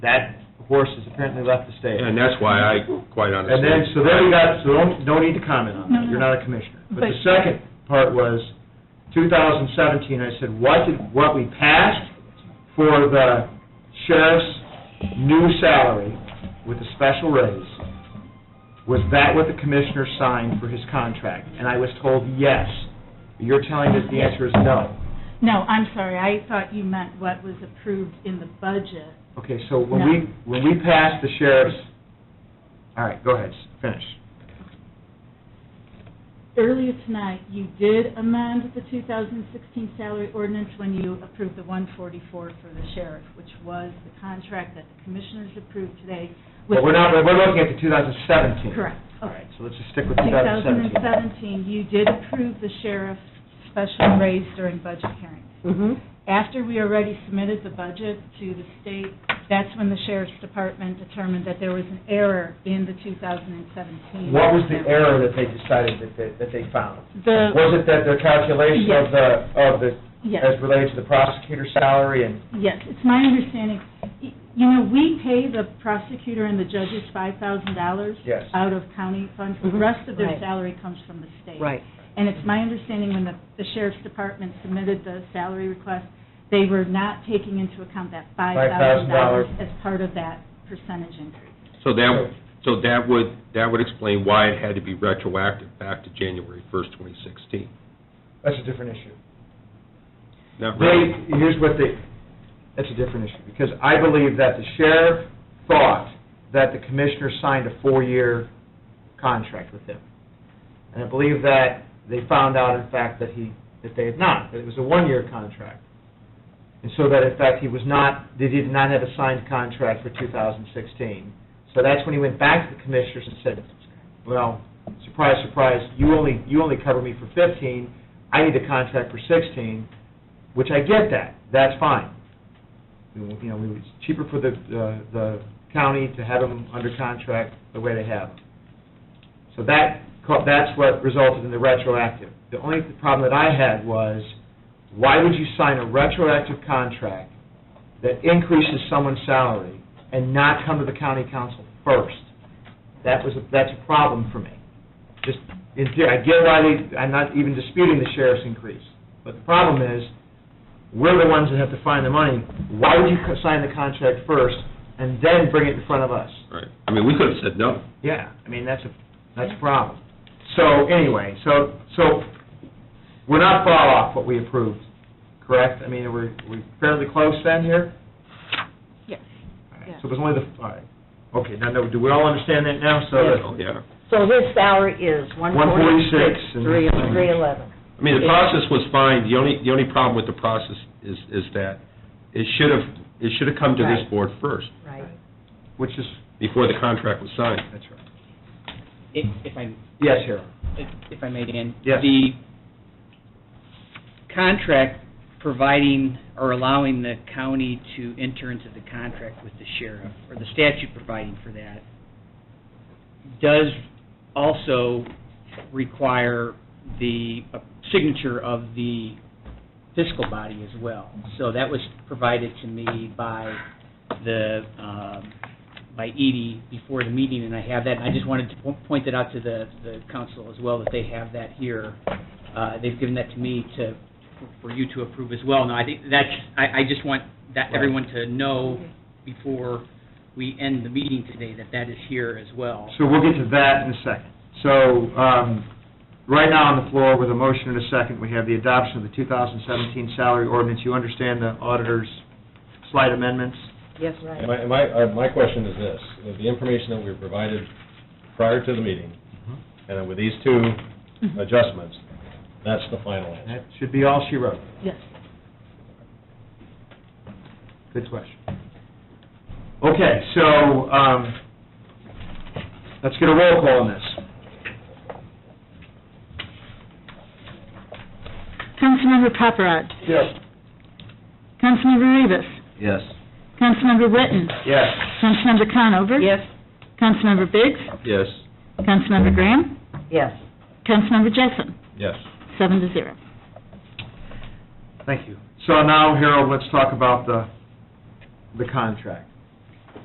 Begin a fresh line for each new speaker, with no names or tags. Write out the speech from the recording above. that horse is apparently left the stable.
And that's why I, quite honestly.
And then, so then we got, so don't, no need to comment on
No,
that,
no.
you're not a commissioner. But the
But-
second part was, 2017, I said, what did, what we passed for the sheriff's new salary with a special raise, was that what the commissioner signed for his contract? And I was told, yes. You're telling us the answer is no.
No, I'm sorry, I thought you meant what was approved in the budget.
Okay, so when we,
No.
when we passed the sheriff's, all right, go ahead, finish.
Earlier tonight, you did amend the 2016 salary ordinance when you approved the 144 for the sheriff, which was the contract that the commissioners approved today. with-
But we're not, we're looking at the 2017.
Correct,
All
okay.
right, so let's just stick with 2017.
2017, you did approve the sheriff's special raise during budget hearings.
Mm-hmm.
After we already submitted the budget to the state, that's when the sheriff's department determined that there was an error in the 2017.
What was the error that they decided that, that- that they found?
The,
Was it that their calculation of
Yes.
the, of the,
yes,
as related to the prosecutor's salary and,
yes, it's my understanding, y- you know, we pay the prosecutor and the judges $5,000
yes.
out of county funds, the
Mhm,
rest of their
right.
salary comes from the state.
Right.
And it's my understanding when the the sheriff's department submitted the salary request, they were not taking into account that
$5,000.
$5,000 as part of that percentage increase.
So that, so that would, that would explain why it had to be retroactive back to January first, twenty sixteen.
That's a different issue.
Not
They,
really.
here's what they, that's a different issue, because I believe that the sheriff thought that the commissioner signed a four-year contract with him. And I believe that they found out, in fact, that he, that they had not, that it was a one-year contract. And so that, in fact, he was not, they did not have a signed contract for 2016. So that's when he went back to the commissioners and said, well, surprise, surprise, you only, you only cover me for 15, I need a contract for 16, which I get that, that's fine. You know, we- it's cheaper for the, uh, the county to have them under contract the way they have them. So that, co- that's what resulted in the retroactive. The only problem that I had was, why would you sign a retroactive contract that increases someone's salary and not come to the county council first? That was, a- that's a problem for me. Just, in theory, I get why they, I'm not even disputing the sheriff's increase, but the problem is, we're the ones that have to find the money. Why would you co- sign the contract first and then bring it in front of us?
Right. I mean, we could have said no.
Yeah, I mean, that's a, that's a problem. So, anyway, so, so, we're not far off what we approved, correct? I mean, we're, we're fairly close then here?
Yes.
All right,
Yeah.
So it was only the, all right, okay, now, now, do we all understand that now? So,
Oh, Yeah.
So his salary is one forty-six,
146, and-
three, three eleven.
I mean, the process was fine. The only, the only problem with the process is, is that it should have, it should have come to this
Right.
board first,
Right.
which is,
before the contract was signed.
that's right.
If, if I,
Yes, here.
if if I may, Dan?
Yes.
The contract providing or allowing the county to enter into the contract with the sheriff, or the statute providing for that, does also require the uh, signature of the fiscal body as well. So that was provided to me by the, um, by Edie before the meeting, and I have that. And I just wanted to po- point that out to the, the council as well, that they have that here. Uh, They've given that to me to, for you to approve as well. Now, I think that's, I, I just want that, everyone to know before we end the meeting today, that that is here as well.
So we'll get to that in a second. So, um, right now on the floor with a motion and a second, we have the adoption of the 2017 salary ordinance. You understand the auditor's slight amendments?
Yes,
And
right.
My, and my, uh, my question is this, is the information that we were provided prior to the meeting, and then with these two adjustments, that's the final answer.
That should be all she wrote.
Yes.
Good question. Okay, so, um, let's get a roll call on this.
Councilmember Paparad.
Yes.
Councilmember Rivas.
Yes.
Councilmember Witten.
Yes.
Councilmember Conover.
Yes,
Councilmember Biggs.
Yes.
Councilmember Graham.
yes.
Councilmember Jessen.
Yes.
Seven to zero.
Thank you. So now, Harold, let's talk about the, the contract.